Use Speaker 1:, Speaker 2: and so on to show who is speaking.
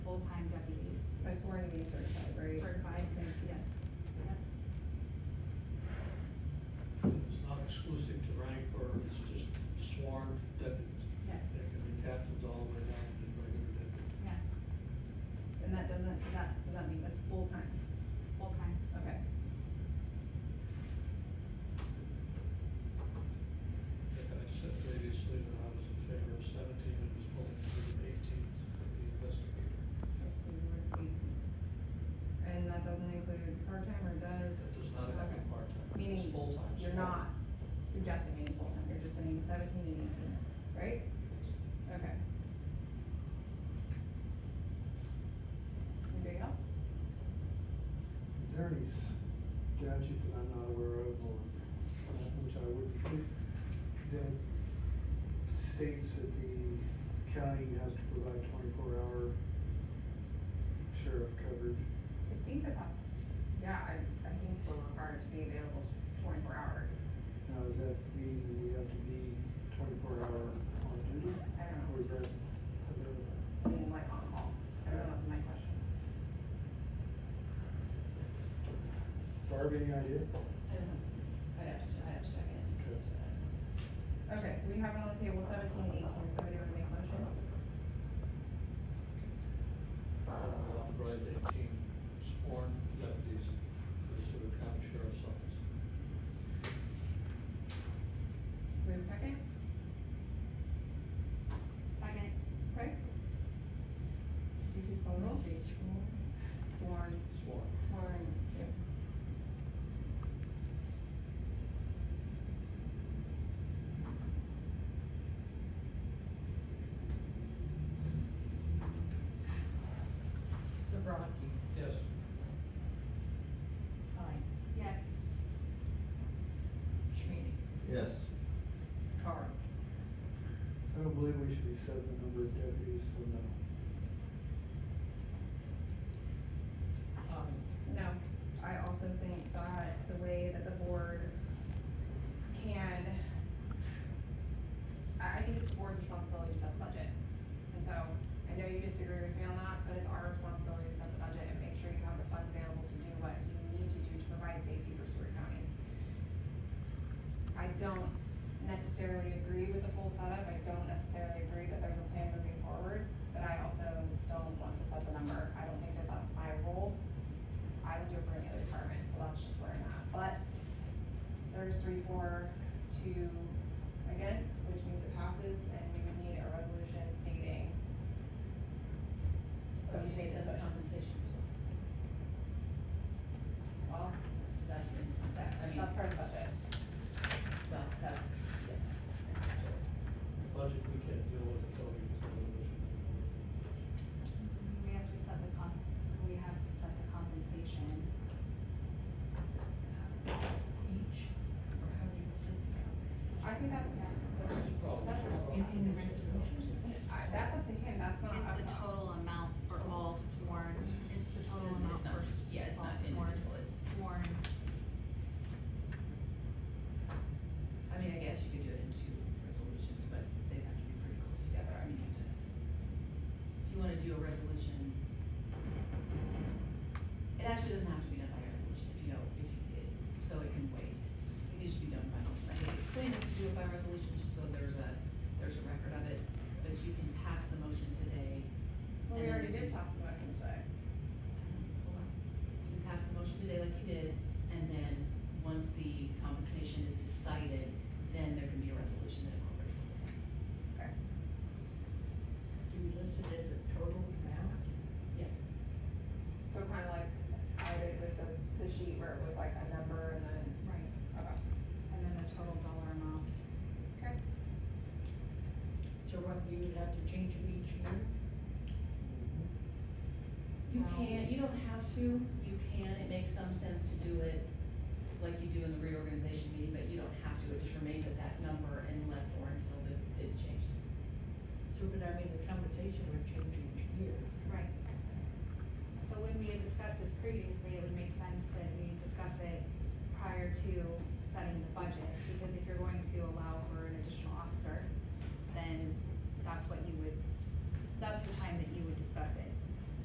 Speaker 1: being certified, right?
Speaker 2: certified, yes.
Speaker 3: It's not exclusive to rank or it's just sworn deputies.
Speaker 2: Yes,
Speaker 3: They can be captains all the way down to regular deputy.
Speaker 2: yes,
Speaker 1: And that doesn't, is that, does that mean that's full-time?
Speaker 2: it's full-time.
Speaker 1: Okay.
Speaker 3: Like I said previously, that I was in favor of seventeen and was pulling for the eighteenth for the investigator.
Speaker 1: Okay, so we were at eighteen. And that doesn't include part-time or does?
Speaker 3: That does not have to be
Speaker 1: Okay.
Speaker 3: part-time,
Speaker 1: Meaning
Speaker 3: it's full-time.
Speaker 1: You're
Speaker 3: sworn.
Speaker 1: not suggesting any full-time, you're just saying seventeen and eighteen, right? Okay. Anybody else?
Speaker 4: Is there any statute that I'm not aware of or uh, which I would, that states that the county has to provide twenty-four hour sheriff coverage?
Speaker 1: I think that that's, yeah, I, I think we're required to be available twenty-four hours.
Speaker 4: Now, does that mean that we have to be twenty-four hour on duty?
Speaker 1: I don't know.
Speaker 4: Or is that available?
Speaker 1: I mean, like on call, I don't know, that's my question.
Speaker 4: Barb, any idea?
Speaker 5: I'd have to, I'd have to check
Speaker 4: Okay.
Speaker 5: it.
Speaker 1: Okay, so we have it on the table seventeen and eighteen, somebody wanna make a motion?
Speaker 3: Authorized eighteen sworn deputies for the Sewer County Sheriff's Office.
Speaker 1: We have a second?
Speaker 2: Second,
Speaker 1: Okay. Can you please call the roll? Sworn.
Speaker 3: Sworn.
Speaker 1: Sworn. Yep.
Speaker 5: Bobrovsky,
Speaker 3: Yes.
Speaker 5: Klein,
Speaker 2: yes,
Speaker 5: Schmady,
Speaker 6: Yes,
Speaker 5: Carl,
Speaker 4: I don't believe we should be setting the number of deputies, so no.
Speaker 5: Bobby,
Speaker 1: No, Um, I also think that the way that the board can, I, I think it's the board's responsibility to set the budget. And so, I know you disagree with me on that, but it's our responsibility to set the budget and make sure you have the funds available to do what you need to do to provide safety for Stewart County. I don't necessarily agree with the full setup, I don't necessarily agree that there's a plan moving forward, but I also don't want to set the number, I don't think that that's my role. I would do it for any other department, so that's just where I'm at, but there's three, four, two against, which means it passes, and we would need a resolution stating.
Speaker 5: but you didn't set the compensation as
Speaker 1: Well,
Speaker 5: well. So that's in, that, I mean,
Speaker 1: that's part of the budget.
Speaker 5: well, that, yes.
Speaker 3: Budget we can't deal with until we get the resolution.
Speaker 2: we have to set the comp, we have to set the compensation. uh,
Speaker 5: Each, or how do you present
Speaker 1: I think that's,
Speaker 3: That's the problem.
Speaker 1: That's
Speaker 5: the compensation? In the resolution, is it?
Speaker 1: I- that's up to him, that's not.
Speaker 7: It's
Speaker 1: up
Speaker 7: the
Speaker 1: to us.
Speaker 7: total amount for all sworn, it's the total
Speaker 5: It's- it's
Speaker 7: amount
Speaker 5: not-
Speaker 7: for s-
Speaker 5: yeah, it's
Speaker 7: all
Speaker 5: not
Speaker 7: sworn,
Speaker 5: individual, it's-
Speaker 7: sworn,
Speaker 5: I mean, I guess you could do it in two resolutions, but they'd have to be pretty close together, I mean, you have to, if you wanna do a resolution. It actually doesn't have to be done by resolution, if you don't, if you, it- so it can wait, it needs to be done by, I think it's cleanest to do it by resolution, just so there's a, there's a record of it, but you can pass the motion today.
Speaker 1: Well, we
Speaker 5: and then
Speaker 1: already
Speaker 5: you
Speaker 1: did
Speaker 5: can-
Speaker 1: pass the motion today.
Speaker 5: Hold on. You pass the motion today like you did, and then, once the compensation is decided, then there can be a resolution that incorporates.
Speaker 1: Okay.
Speaker 5: Do we list it as a total amount? Yes.
Speaker 1: So kind of like, I did with the, the sheet where it was like a number and then,
Speaker 7: right,
Speaker 1: okay.
Speaker 7: and then the total dollar amount.
Speaker 1: Okay.
Speaker 8: So what, you would have to change it each year?
Speaker 5: You
Speaker 7: Um,
Speaker 5: can, you don't have to, you can, it makes some sense to do it like you do in the reorganization meeting, but you don't have to, it just remains at that number unless or until it- it's changed.
Speaker 8: So, but I mean, the compensation would change each year.
Speaker 2: Right. So when we had discussed this previously, it would make sense that we discuss it prior to setting the budget, because if you're going to allow for an additional officer, then that's what you would, that's the time that you would discuss it.